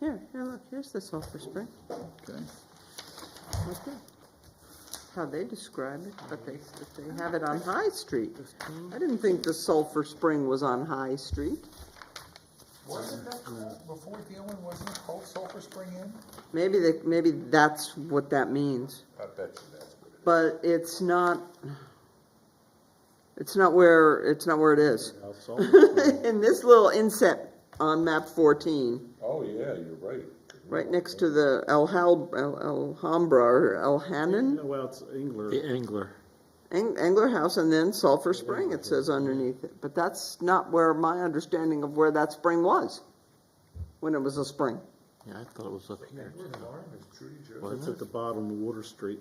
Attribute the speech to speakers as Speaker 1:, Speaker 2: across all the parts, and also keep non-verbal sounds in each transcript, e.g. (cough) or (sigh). Speaker 1: Here, here, look, here's the sulfur spring.
Speaker 2: Okay.
Speaker 1: Right there. How they describe it, but they, but they have it on High Street. I didn't think the sulfur spring was on High Street.
Speaker 3: Wasn't that called, before Dillon, wasn't it called Sulphur Spring Inn?
Speaker 1: Maybe they, maybe that's what that means.
Speaker 3: I bet you that's what it
Speaker 1: But it's not, it's not where, it's not where it is.
Speaker 3: Oh,
Speaker 1: (laughs) In this little inset on map fourteen,
Speaker 3: Oh, yeah, you're right.
Speaker 1: right next to the El Hal, El Alhambra or El Hanan,
Speaker 4: Well, it's Engler.
Speaker 2: The angler.
Speaker 1: Ang- Angler House and then Sulphur Spring, it says underneath it. But that's not where my understanding of where that spring was, when it was a spring.
Speaker 2: Yeah, I thought it was up here.
Speaker 4: Well, It's at the bottom of Water Street.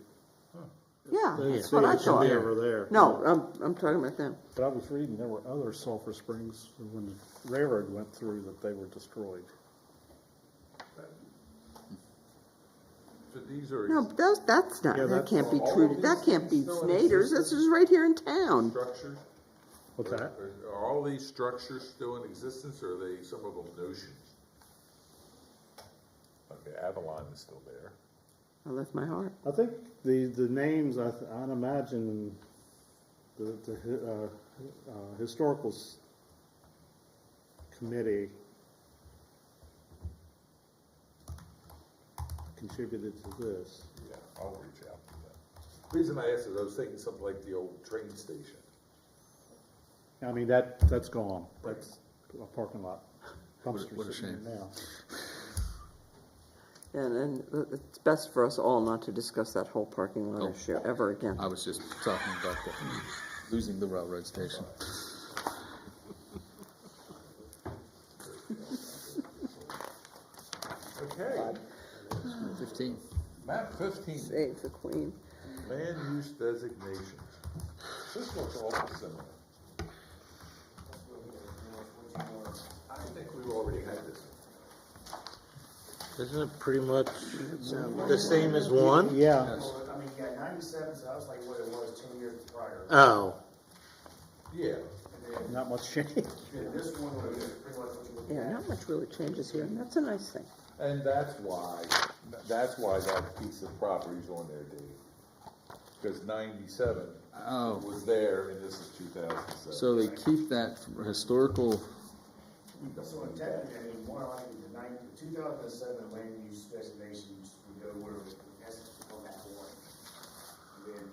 Speaker 1: Yeah,
Speaker 4: They
Speaker 1: that's
Speaker 4: say
Speaker 1: what I
Speaker 4: it should be
Speaker 1: thought.
Speaker 4: Over there.
Speaker 1: No, I'm, I'm talking about them.
Speaker 4: But I was reading, there were other sulfur springs when the railroad went through that they were destroyed.
Speaker 3: So these are
Speaker 1: No, but those, that's not,
Speaker 4: Yeah,
Speaker 1: that
Speaker 4: that's-
Speaker 1: can't be
Speaker 3: Well, all
Speaker 1: true,
Speaker 3: of
Speaker 1: that
Speaker 3: these
Speaker 1: can't be
Speaker 3: things still in
Speaker 1: Snyder's, this
Speaker 3: existence?
Speaker 1: is right here in town.
Speaker 3: structures?
Speaker 4: What's that?
Speaker 3: Are- Are all these structures still in existence, or are they, some of them notions? Okay, Avalon is still there.
Speaker 1: I left my heart.
Speaker 4: I think the, the names, I, th- I'd imagine the, the, hi- uh, uh, historical s- committee contributed to this.
Speaker 3: Yeah, I'll reach out to them. Reason I asked is I was thinking something like the old train station.
Speaker 4: I mean, that, that's gone. That's a parking lot.
Speaker 2: what a
Speaker 4: Dumpster sitting
Speaker 2: shame.
Speaker 4: there now.
Speaker 1: And, and it's best for us all not to discuss that whole parking lot
Speaker 2: Oh.
Speaker 1: issue ever again.
Speaker 2: I was just talking about the, losing the railroad station.
Speaker 3: Okay,
Speaker 2: Fifteen.
Speaker 3: map fifteen.
Speaker 1: Save the queen.
Speaker 3: Land use designations. This looks awful similar. I think we've already had this.
Speaker 5: Isn't it pretty much the same as one?
Speaker 4: Yeah,
Speaker 6: Well, I mean, yeah, ninety-seven, so that was like what it was ten years prior.
Speaker 5: Oh,
Speaker 3: Yeah,
Speaker 6: And then,
Speaker 4: not much (laughs) change.
Speaker 6: then this one was pretty much what you looked
Speaker 1: Yeah,
Speaker 6: at.
Speaker 1: not much really changes here, and that's a nice thing.
Speaker 3: and that's why, that's why that piece of property's on there, Dave. Because ninety-seven
Speaker 2: Oh.
Speaker 3: was there, and this is two thousand seven.
Speaker 2: So they keep that for historical,
Speaker 6: So in technically, I mean, more likely the nine, the two thousand and seven land use designations would go where it was contested on that one. And then,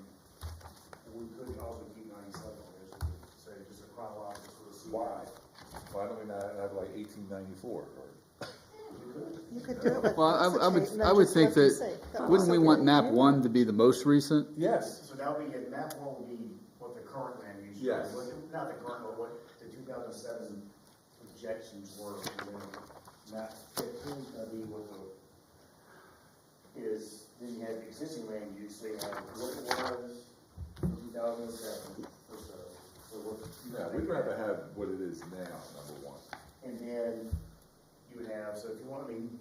Speaker 6: we could also keep ninety-seven on there, so we- so just a chronological sort of. sequence.
Speaker 3: Why? Why don't we not have like eighteen ninety-four?
Speaker 7: You could do it with.
Speaker 2: well, I, I
Speaker 7: Mexican,
Speaker 2: would,
Speaker 7: no,
Speaker 2: I would
Speaker 7: just
Speaker 2: think
Speaker 7: like you
Speaker 2: that,
Speaker 7: say. That was
Speaker 2: wouldn't we
Speaker 7: something
Speaker 2: want map
Speaker 7: that-
Speaker 2: one to be the most recent?
Speaker 3: Yes.
Speaker 6: So that would be, and that one would be what the current land use. was,
Speaker 3: Yes.
Speaker 6: what- Not the current, but what the two thousand seven projections were, and then map fifteen's gonna be what the, is, then you have existing land use, so you have what it was from two thousand seven, or so, or what. you
Speaker 3: No, we'd rather have what it is now, number one.
Speaker 6: And then you would have, so if you want, I mean,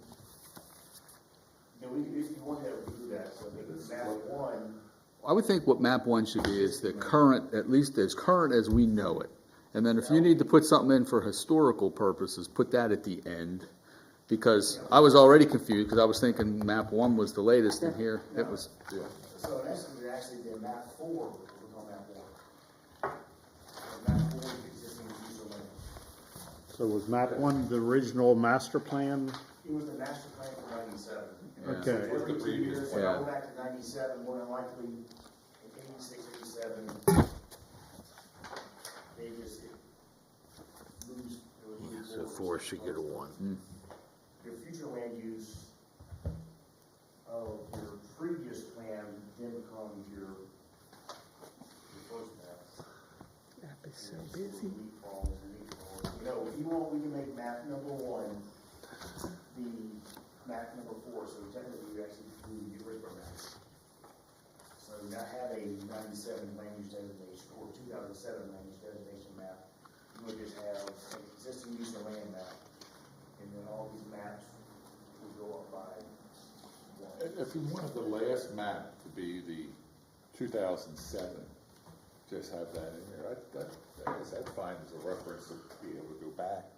Speaker 6: you know, we could, if you want to, we could do that, so I think map one.
Speaker 2: I would think what map one should be is the current, at least as current as we know it. And then if you need to put something in for historical purposes, put that at the end. Because I was already confused, because I was thinking map one was the latest and here it was,
Speaker 3: Yeah.
Speaker 6: So in essence, we're actually then map four, we're on map one. And Map four is existing use of land.
Speaker 4: So was map one the original master plan?
Speaker 6: It was the master plan for ninety-seven.
Speaker 4: Okay.
Speaker 6: So Every two years,
Speaker 2: Yeah.
Speaker 6: go back to ninety-seven, more than likely, in eighty-six, eighty-seven. They just lose. it would lose
Speaker 5: so
Speaker 6: their-
Speaker 5: four should get a one.
Speaker 6: Your future land use of your previous plan then becomes your, your first map.
Speaker 1: That'd be so
Speaker 6: Yeah, it's
Speaker 1: busy.
Speaker 6: little leaf balls and leaf balls. You know, if you want, we can make map number one, the map number four, so technically you actually do the original map. So not have a ninety-seven land use designation or two thousand seven land use designation map. You would just have an existing use of land map, and then all these maps would go up by one.
Speaker 3: If if you wanted the last map to be the two thousand seven, just have that in there, that, that, that's fine as a reference to be able to go back,